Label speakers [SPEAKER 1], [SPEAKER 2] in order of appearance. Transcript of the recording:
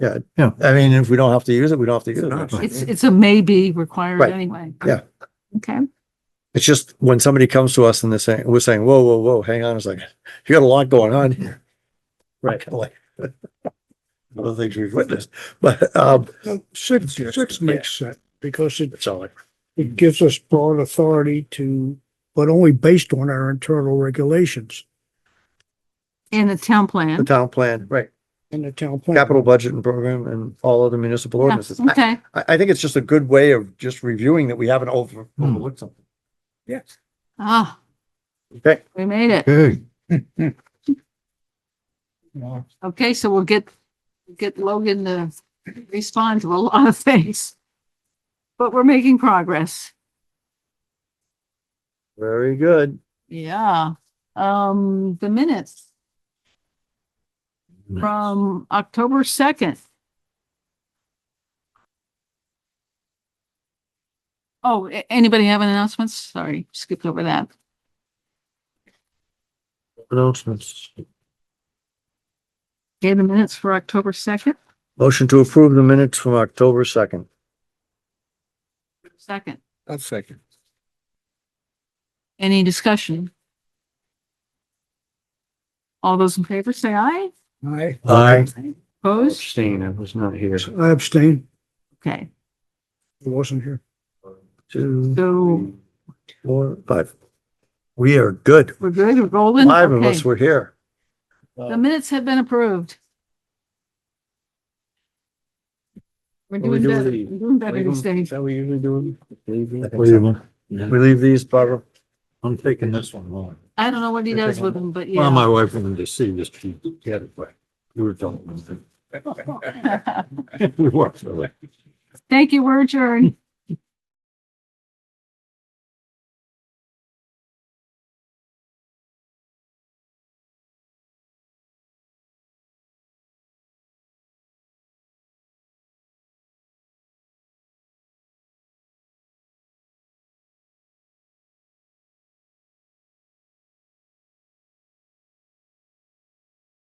[SPEAKER 1] Yeah.
[SPEAKER 2] Yeah.
[SPEAKER 1] I mean, if we don't have to use it, we don't have to use
[SPEAKER 3] not.
[SPEAKER 1] it.
[SPEAKER 4] It's, it's a maybe required
[SPEAKER 1] Right.
[SPEAKER 4] anyway.
[SPEAKER 1] Yeah.
[SPEAKER 4] Okay,
[SPEAKER 1] It's just when somebody comes to us and they're saying, we're saying, whoa, whoa, whoa, hang on a second. You got a lot going on here. Right. Like, Other things we've witnessed, but, um,
[SPEAKER 3] No, Six, six makes sense because it,
[SPEAKER 1] it's all like,
[SPEAKER 3] it gives us broad authority to, but only based on our internal regulations
[SPEAKER 4] and the town
[SPEAKER 1] the
[SPEAKER 4] plan.
[SPEAKER 1] town plan, right?
[SPEAKER 3] and the town. plan.
[SPEAKER 1] Capital budget and program and all other municipal
[SPEAKER 4] Yeah,
[SPEAKER 1] ordinances. I-
[SPEAKER 4] Okay,
[SPEAKER 1] I, I think it's just a good way of just reviewing that we haven't over,
[SPEAKER 2] Hmm.
[SPEAKER 1] overlooked something. Yes.
[SPEAKER 4] ah,
[SPEAKER 1] Okay,
[SPEAKER 4] we made it.
[SPEAKER 2] Okay,
[SPEAKER 4] Okay, so we'll get, get Logan to respond to a lot of things. But we're making progress.
[SPEAKER 1] very good.
[SPEAKER 4] Yeah, um, the minutes from October second. Oh, a- anybody have any announcements? Sorry, skipped over that.
[SPEAKER 1] Announcements.
[SPEAKER 4] Okay, the minutes for October second,
[SPEAKER 1] Motion to approve the minutes from October second.
[SPEAKER 4] second.
[SPEAKER 2] A second.
[SPEAKER 4] Any discussion? All those in favor say aye.
[SPEAKER 3] I,
[SPEAKER 1] Aye.
[SPEAKER 4] Opposed?
[SPEAKER 2] Abstain, I was not here.
[SPEAKER 3] I abstain.
[SPEAKER 4] Okay,
[SPEAKER 3] I wasn't here.
[SPEAKER 1] Two,
[SPEAKER 4] so
[SPEAKER 1] four, five. We are good.
[SPEAKER 4] we're good, we're golden?
[SPEAKER 1] Five of
[SPEAKER 4] Okay.
[SPEAKER 1] us were here.
[SPEAKER 4] The minutes have been approved. We're
[SPEAKER 2] What we
[SPEAKER 4] doing
[SPEAKER 2] do with
[SPEAKER 4] better,
[SPEAKER 2] the-
[SPEAKER 4] We're doing better these days.
[SPEAKER 2] that we usually do?
[SPEAKER 1] We leave these, Barbara.
[SPEAKER 2] I'm taking this one home.
[SPEAKER 4] I don't know what he does with them, but
[SPEAKER 2] Well,
[SPEAKER 4] yeah.
[SPEAKER 2] my wife wanted to see this, she had it, but we were talking. about it. We walked away.
[SPEAKER 4] Thank you, we're adjourned.